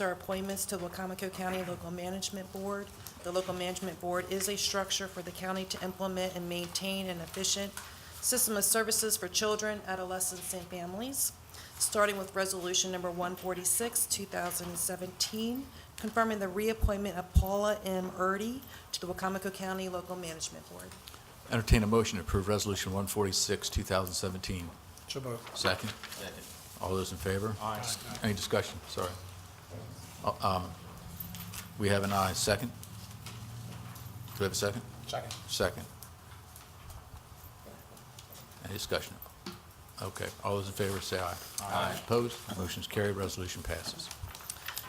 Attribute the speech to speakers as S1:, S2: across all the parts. S1: are appointments to Wacomico County Local Management Board. The Local Management Board is a structure for the county to implement and maintain an efficient system of services for children, adolescents, and families, starting with Resolution Number 146, 2017, confirming the reappointment of Paula M. Erdy to the Wacomico County Local Management Board.
S2: Entertain a motion to approve Resolution 146, 2017.
S3: So moved.
S2: Second? Second. All those in favor? Aye. Any discussion? Sorry. Uh, um, We have an aye. Second? Do we have a second?
S3: Second.
S2: Second. Any discussion? Okay. All those in favor, say aye. Aye. Opposed? Motion's carried. Resolution passes.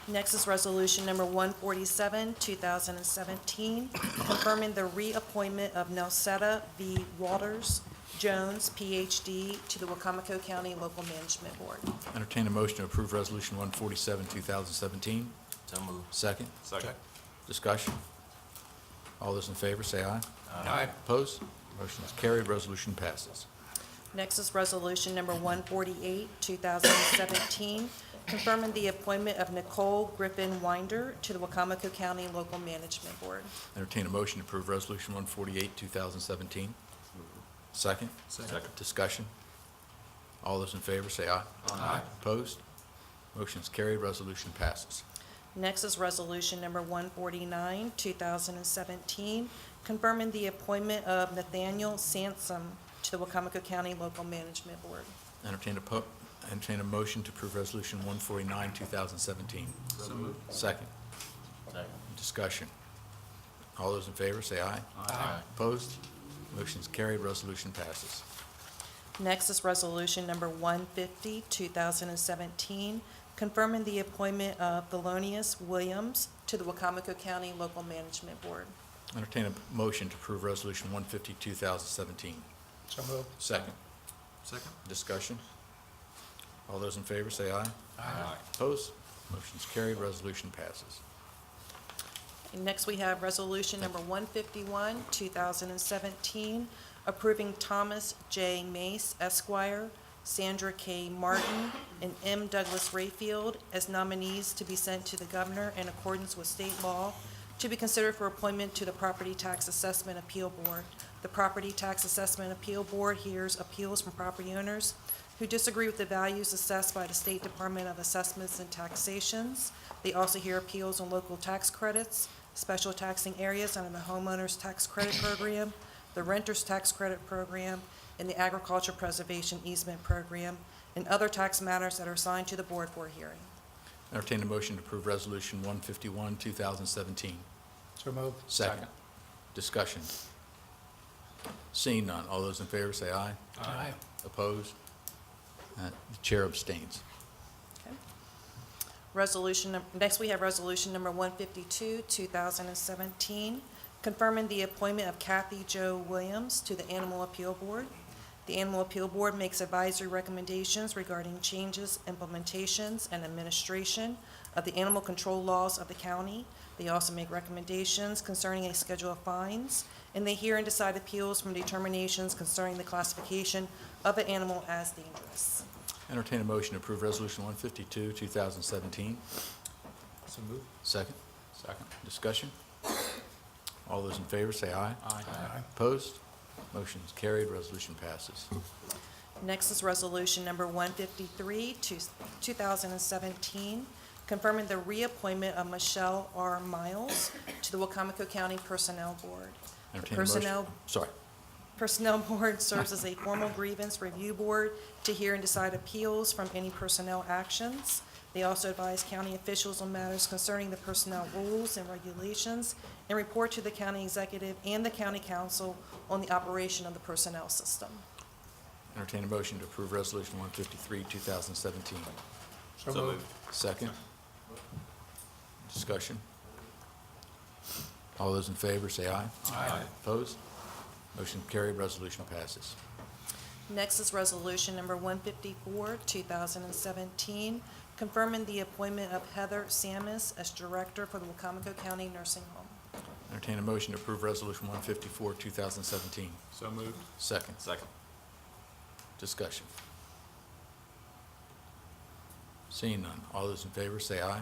S1: Next is Resolution Number 147, 2017, confirming the reappointment of Nelseta V. Waters Jones, Ph.D., to the Wacomico County Local Management Board.
S2: Entertain a motion to approve Resolution 147, 2017.
S4: So moved.
S2: Second?
S3: Second.
S2: Discussion? All those in favor, say aye.
S3: Aye.
S2: Opposed? Motion is carried. Resolution passes.
S1: Next is Resolution Number 148, 2017, confirming the appointment of Nicole Griffin Winder to the Wacomico County Local Management Board.
S2: Entertain a motion to approve Resolution 148, 2017. Second?
S4: Second.
S2: Discussion? All those in favor, say aye. Aye. Opposed? Motion is carried. Resolution passes.
S1: Next is Resolution Number 149, 2017, confirming the appointment of Nathaniel Sansom to the Wacomico County Local Management Board.
S2: Entertain a, po- entertain a motion to approve Resolution 149, 2017.
S4: So moved.
S2: Second?
S4: Second.
S2: Discussion? All those in favor, say aye.
S4: Aye.
S2: Opposed? Motion is carried. Resolution passes.
S1: Next is Resolution Number 150, 2017, confirming the appointment of Thelonious Williams to the Wacomico County Local Management Board.
S2: Entertain a motion to approve Resolution 150, 2017.
S3: So moved.
S2: Second.
S4: Second.
S2: Discussion? All those in favor, say aye.
S4: Aye.
S2: Opposed? Motion's carried, resolution passes.
S1: And next, we have Resolution Number 151, 2017, approving Thomas J. Mace Esquire, Sandra K. Martin, and M. Douglas Rayfield as nominees to be sent to the governor in accordance with state law to be considered for appointment to the Property Tax Assessment Appeal Board. The Property Tax Assessment Appeal Board hears appeals from property owners who disagree with the values assessed by the State Department of Assessments and Taxations. They also hear appeals on local tax credits, special taxing areas under the Homeowners Tax Credit Program, the Renters Tax Credit Program, and the Agriculture Preservation Easement Program, and other tax matters that are assigned to the board for hearing.
S2: Entertain a motion to approve Resolution 151, 2017.
S3: So moved.
S2: Second. Discussion. Seeing none, all those in favor say aye.
S3: Aye.
S2: Opposed? Uh, The chair abstains.
S1: Okay. Resolution, num- next we have Resolution Number 152, 2017, confirming the appointment of Kathy Jo Williams to the Animal Appeal Board. The Animal Appeal Board makes advisory recommendations regarding changes, implementations, and administration of the animal control laws of the county. They also make recommendations concerning a schedule of fines, and they hear and decide appeals from determinations concerning the classification of an animal as dangerous.
S2: Entertain a motion to approve Resolution 152, 2017.
S4: So moved.
S2: Second.
S4: Second.
S2: Discussion. All those in favor say aye.
S4: Aye.
S2: Opposed? Motion is carried, resolution passes.
S1: Next is Resolution Number 153, two- 2017, confirming the reappointment of Michelle R. Miles to the Wacomico County Personnel Board. The
S2: Entertain a motion-
S1: Personnel
S2: Sorry.
S1: Personnel Board serves as a formal grievance review board to hear and decide appeals from any personnel actions. They also advise county officials on matters concerning the personnel rules and regulations and report to the county executive and the county council on the operation of the personnel system.
S2: Entertain a motion to approve Resolution 153, 2017.
S3: So moved.
S2: Second. Discussion. All those in favor, say aye.
S4: Aye.
S2: Opposed? Motion carried, resolution passes.
S1: Next is Resolution Number 154, 2017, confirming the appointment of Heather Samus as Director for the Wacomico County Nursing Home.
S2: Entertain a motion to approve Resolution 154, 2017.
S4: So moved.
S2: Second.
S4: Second.
S2: Discussion. Seeing none, all those in favor, say aye.